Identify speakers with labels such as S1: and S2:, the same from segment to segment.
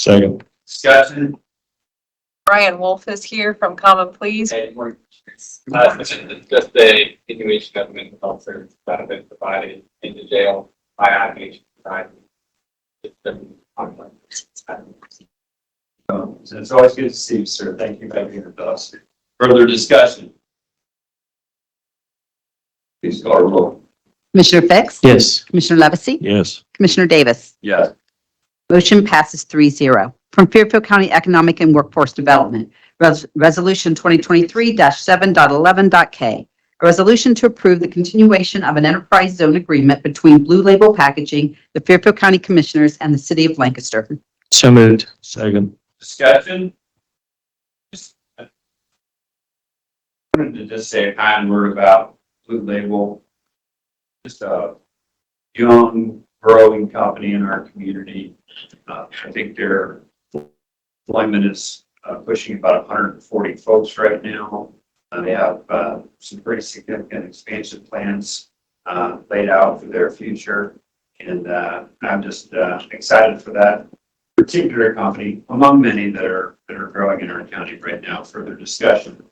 S1: Second.
S2: Discussion,
S3: Brian Wolf is here from Common Pleas.
S2: and we're, uh, this is just a continuation of mental health service that have been provided into jail by outpatient society. It's been ongoing. Um, So it's always good to see you, sir. Thank you for being with us. Further discussion? Please call roll.
S4: Commissioner Fix?
S1: Yes.
S4: Commissioner Levesey?
S1: Yes.
S4: Commissioner Davis?
S2: Yes.
S4: Motion passes 3-0 From Fairfield County Economic and Workforce Development, Res- Resolution 2023-7.11.k. A resolution to approve the continuation of an enterprise zone agreement between Blue Label Packaging, the Fairfield County Commissioners, and the City of Lancaster.
S1: So moved. Second.
S2: Discussion? Just- I Wanted to just say a kind word about Blue Label. Just a young growing company in our community. Uh, I think their employment is uh, pushing about hundred and forty folks right now. Uh, they have, uh, some pretty significant expansion plans, uh, laid out for their future. And, uh, I'm just, uh, excited for that particular company among many that are, that are growing in our county right now. Further discussion.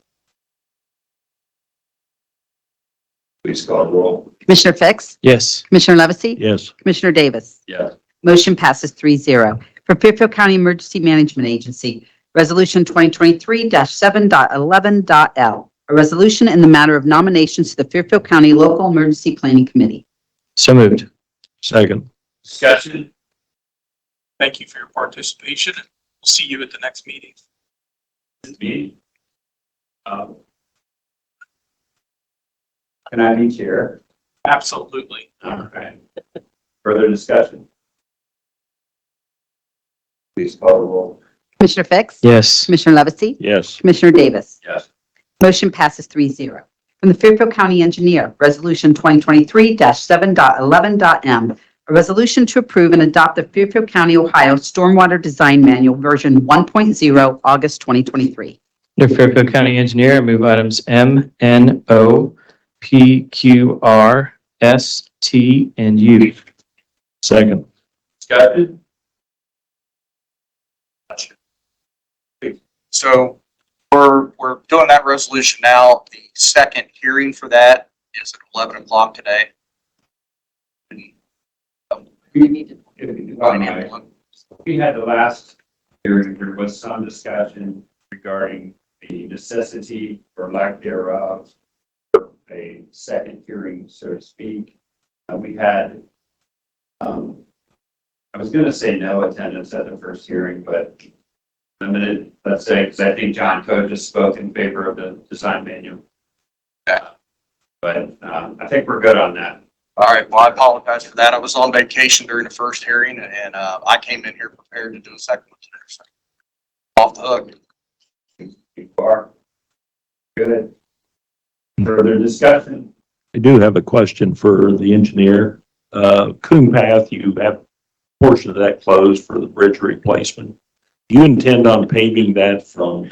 S2: Please call roll.
S4: Commissioner Fix?
S1: Yes.
S4: Commissioner Levesey?
S1: Yes.
S4: Commissioner Davis?
S2: Yes.
S4: Motion passes 3-0 For Fairfield County Emergency Management Agency, Resolution 2023-7.11.l. A resolution in the matter of nominations to the Fairfield County Local Emergency Planning Committee.
S1: So moved. Second.
S2: Discussion.
S5: Thank you for your participation. We'll See you at the next meeting.
S2: Me. Um, Can I be chair?
S5: Absolutely.
S2: All right. Further discussion. Please call roll.
S4: Commissioner Fix?
S1: Yes.
S4: Commissioner Levesey?
S1: Yes.
S4: Commissioner Davis?
S2: Yes.
S4: Motion passes 3-0 From the Fairfield County Engineer, Resolution 2023-7.11.m. A resolution to approve and adopt the Fairfield County, Ohio Stormwater Design Manual, Version 1.0, August 2023.
S1: Under Fairfield County Engineer, I move items M, N, O, P, Q, R, S, T, and U. Second.
S2: Discussion.
S5: So we're, we're doing that resolution now. The second hearing for that is at 11 o'clock today.
S2: We had the last hearing, there was some discussion regarding the necessity or lack thereof of a second hearing, so to speak. Uh, we had, um, I was gonna say no attendance at the first hearing, but limited, let's say, because I think John Code just spoke in favor of the design manual.
S5: Okay.
S2: But, um, I think we're good on that.
S5: All right, well, I apologize for that. I was on vacation during the first hearing and uh, I came in here prepared to do a second one today. so Off the hook.
S2: You are. Good. Further discussion?
S6: I do have a question for the engineer. Uh, Coon Path, you have a portion of that closed for the bridge replacement. Do you intend on paving that from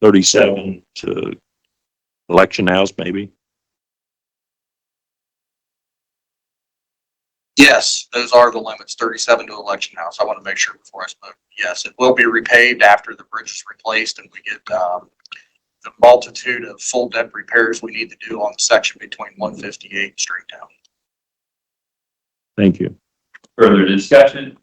S6: thirty-seven to Election House, maybe?
S5: Yes, those are the limits, 37 to Election House. I want to make sure before I spoke. Yes, it will be repaved after the bridge is replaced and we get um, the multitude of full depth repairs we need to do on the section between 158 and straight down.
S6: Thank you.
S2: Further discussion?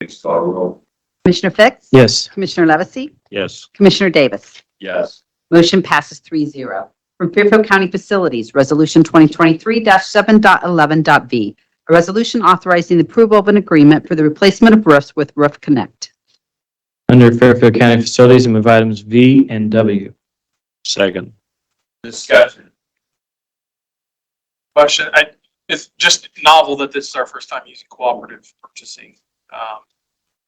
S2: Please call roll.
S4: Commissioner Fix?
S1: Yes.
S4: Commissioner Levesey?
S6: Yes.
S4: Commissioner Davis?
S2: Yes.
S4: Motion passes 3-0. From Fairfield County Facilities, Resolution 2023-7.11.v. A resolution authorizing the approval of an agreement for the replacement of roofs with Roof Connect.
S1: Under Fairfield County Facilities, I move items V and W.
S6: Second.
S2: Discussion?
S7: question. I, it's just novel that this is our first time using cooperative purchasing, um,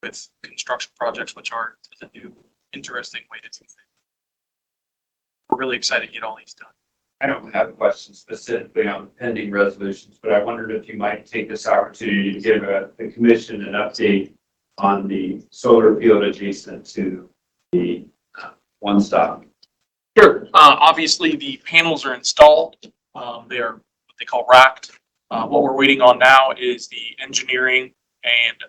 S7: with construction projects, which are a new, interesting way to do things. We're really excited to get all these done.
S2: I don't have questions specifically on pending resolutions, but I wondered if you might take this opportunity to give uh, the commission an update on the solar field adjacent to the uh, one stop.
S7: Sure. Uh, obviously, the panels are installed. Um, they are what they call racked. Uh, what we're waiting on now is the engineering and